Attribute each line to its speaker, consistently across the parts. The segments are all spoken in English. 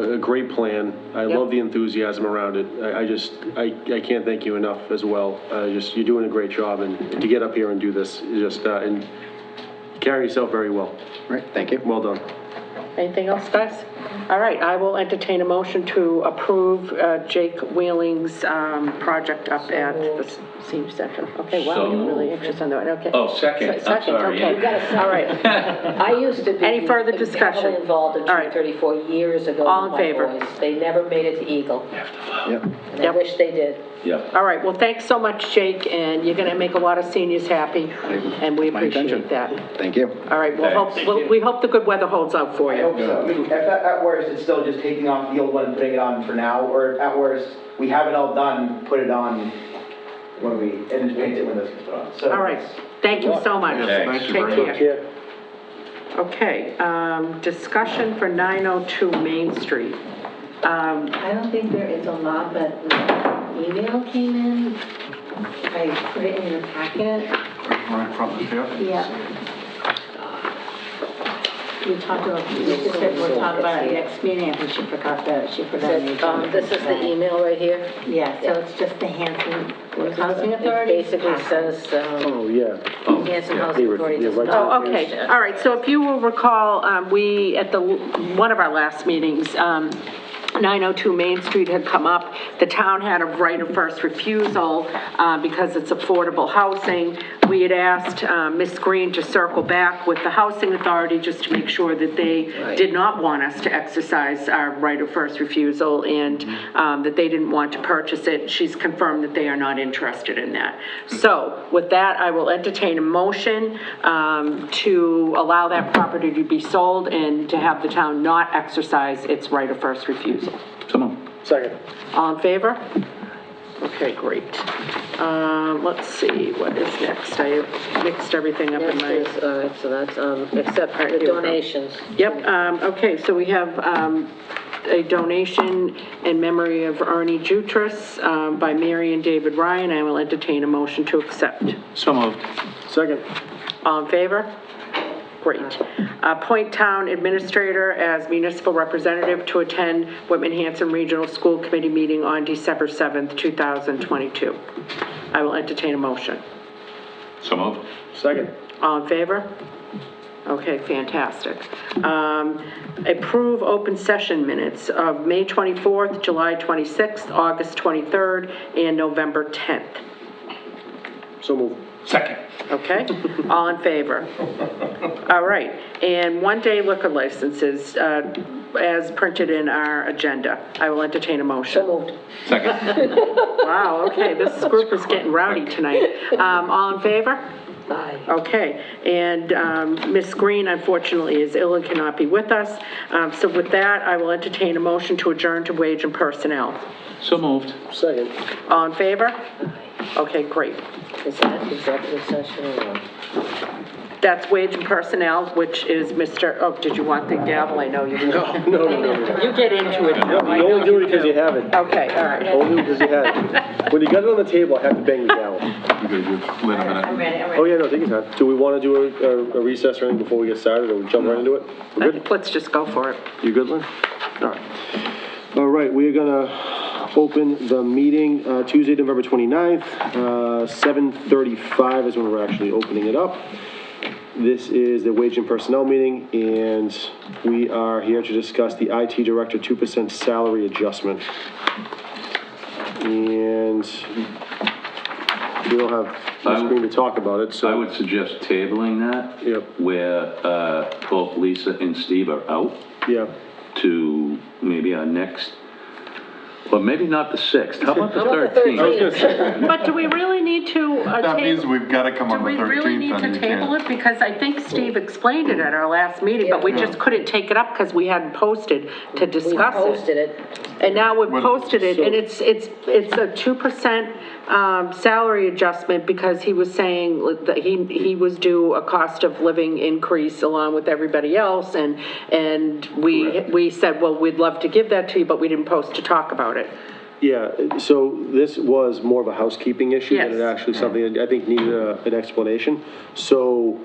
Speaker 1: a, a great plan. I
Speaker 2: Yep.
Speaker 1: love the enthusiasm around it. I, I just, I, I can't thank you enough as well. Uh, just, you're doing a great job and to get up here and do this, you just, uh, and carry yourself very well.
Speaker 3: Right, thank you.
Speaker 1: Well done.
Speaker 2: Anything else, guys? All right, I will entertain a motion to approve uh, Jake Wheeling's um, project up at the s- senior center. Okay, wow, you're really anxious on that, okay.
Speaker 4: Oh, second, I'm
Speaker 2: Second,
Speaker 4: sorry, yeah.
Speaker 2: okay.
Speaker 4: You
Speaker 5: got a second.
Speaker 2: All right,
Speaker 5: I used to be.
Speaker 2: Any further
Speaker 5: heavily
Speaker 2: discussion?
Speaker 5: Involved in
Speaker 2: All right.
Speaker 5: 234 years ago.
Speaker 2: All in
Speaker 5: with my
Speaker 2: favor?
Speaker 5: boys. They never made it to Eagle,
Speaker 3: Yep.
Speaker 5: and I
Speaker 2: Yep.
Speaker 5: wish they did.
Speaker 4: Yeah.
Speaker 2: all right, well, thanks so much, Jake, and you're gonna make a lot of seniors happy, and we
Speaker 3: My intention.
Speaker 2: appreciate that.
Speaker 3: Thank you.
Speaker 2: All right, we'll hope, we'll- we hope the good weather holds out for
Speaker 6: I
Speaker 2: you.
Speaker 6: hope so. I mean, if at, at worst, it's still just taking off the old one and putting it on for now, or at worst, we have it all done, put it on when we, and just paint it when this gets put on, so.
Speaker 2: All right, thank you so much.
Speaker 4: Thanks.
Speaker 2: Take care. Okay, um, discussion for 902 Main Street. Um,
Speaker 7: I don't think there is a lot, but an email came in. I put it in the packet. Yeah. We talked about, Lisa said we'll talk about it next meeting, I think she forgot that, she
Speaker 5: Is
Speaker 7: forgot. the
Speaker 5: it, um,
Speaker 7: agenda.
Speaker 5: This is the e- email right here.
Speaker 7: Yeah, so it's just the Hanson Housing
Speaker 5: It
Speaker 7: Authority.
Speaker 5: basically says, um,
Speaker 1: Oh, yeah.
Speaker 5: Hanson Housing Authority does
Speaker 1: right
Speaker 5: not.
Speaker 2: Oh, okay, all right, so if you will recall, um, we, at the, one of our last meetings, um, 902 Main Street had come up, the town had a right of first refusal uh, because it's affordable housing. We had asked um, Ms. Green to circle back with the Housing Authority just to make sure that they did not want us to exercise our right of first refusal and
Speaker 5: Mm-hmm.
Speaker 2: um, that they didn't want to purchase it. She's confirmed that they are not interested in that. So with that, I will entertain a motion um, to allow that property to be sold and to have the town not exercise its right of first refusal.
Speaker 3: Come on.
Speaker 1: Second.
Speaker 2: All in favor? Okay, great. Um, Let's see, what is next? I mixed everything up in
Speaker 5: Next
Speaker 2: my.
Speaker 5: is, uh, all right, so that's, um, accept the donations.
Speaker 2: Yep, um, okay, so we have, um, a donation in memory of Ernie Jutras, um, by Mary and David Ryan. I will entertain a motion to accept.
Speaker 3: So moved.
Speaker 1: Second.
Speaker 2: All in favor? Great. Appoint town administrator as municipal representative to attend Whitman Hanson Regional School Committee meeting on December 7th, 2022. I will entertain a motion.
Speaker 4: So moved.
Speaker 1: Second.
Speaker 2: All in favor? Okay, fantastic. Um, Approve open session minutes of May 24th, July 26th, August 23rd, and November 10th.
Speaker 1: So move.
Speaker 4: Second.
Speaker 2: Okay, all in favor? All right, and one-day liquor licenses uh, as printed in our agenda. I will entertain a motion.
Speaker 5: So moved.
Speaker 4: Second.
Speaker 2: Wow, okay, this group is getting rowdy tonight. Um, All in favor?
Speaker 5: Aye.
Speaker 2: Okay, and um, Ms. Green unfortunately is ill and cannot be with us. Um, So with that, I will entertain a motion to adjourn to wage and personnel.
Speaker 3: So moved.
Speaker 1: Second.
Speaker 2: All in favor? Okay, great.
Speaker 5: Is that executive session or not?
Speaker 2: That's wage and personnel, which is Mr., oh, did you want the gavel? I know you
Speaker 1: No, no, no, no.
Speaker 2: You get into it.
Speaker 1: No, You only do it because you have it.
Speaker 2: Okay, all right.
Speaker 1: Only do it because you have it. When you got it on the table, I have to bang you down.
Speaker 4: Wait a minute.
Speaker 7: I'm ready, I'm ready.
Speaker 1: Oh, yeah, no, take your time. Do we want to do a- a a recess or anything before we get started, or we jump right into it? We're good?
Speaker 2: Let's just go for it.
Speaker 1: You good, Lynn? All right. All right, we're gonna open the meeting uh, Tuesday, November 29th, uh, 7:35 is when we're actually opening it up. This is the Wage and Personnel Meeting, and we are here to discuss the IT Director 2% salary adjustment. And we don't have
Speaker 4: I
Speaker 1: much
Speaker 4: would-
Speaker 1: screen to talk about it, so.
Speaker 4: I would suggest tabling that.
Speaker 1: Yep.
Speaker 4: Where, uh, both Lisa and Steve are out.
Speaker 1: Yeah,
Speaker 4: to maybe our next, well, maybe not the 6th, how about the
Speaker 5: How about the
Speaker 4: 13th?
Speaker 2: But do we really need to? uh,
Speaker 8: That means
Speaker 2: table-
Speaker 8: we've gotta come on the
Speaker 2: Do we really
Speaker 8: 13th,
Speaker 2: need
Speaker 8: then
Speaker 2: to
Speaker 8: you
Speaker 2: table
Speaker 8: can't.
Speaker 2: it? Because I think Steve explained it at our last meeting, but we just couldn't take it up because we hadn't posted to
Speaker 5: We
Speaker 2: discuss it.
Speaker 5: posted it.
Speaker 2: And now we've
Speaker 8: Well,
Speaker 2: posted it, and
Speaker 1: so-
Speaker 2: it's, it's, it's a 2% um, salary adjustment because he was saying that he, he was due a cost of living increase along with everybody else, and, and we, we said, well, we'd love to give that to you, but we didn't post to talk about it.
Speaker 1: Yeah, so this was more of a housekeeping issue than
Speaker 2: Yes.
Speaker 1: it actually something that I think needed a- an explanation. So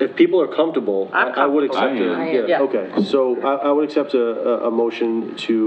Speaker 1: If people are comfortable, I
Speaker 2: I'm
Speaker 1: I would
Speaker 2: comfortable.
Speaker 1: accept
Speaker 4: I am.
Speaker 2: I
Speaker 1: it.
Speaker 2: am. Yeah.
Speaker 1: Okay, so I, I would accept a, a, a motion to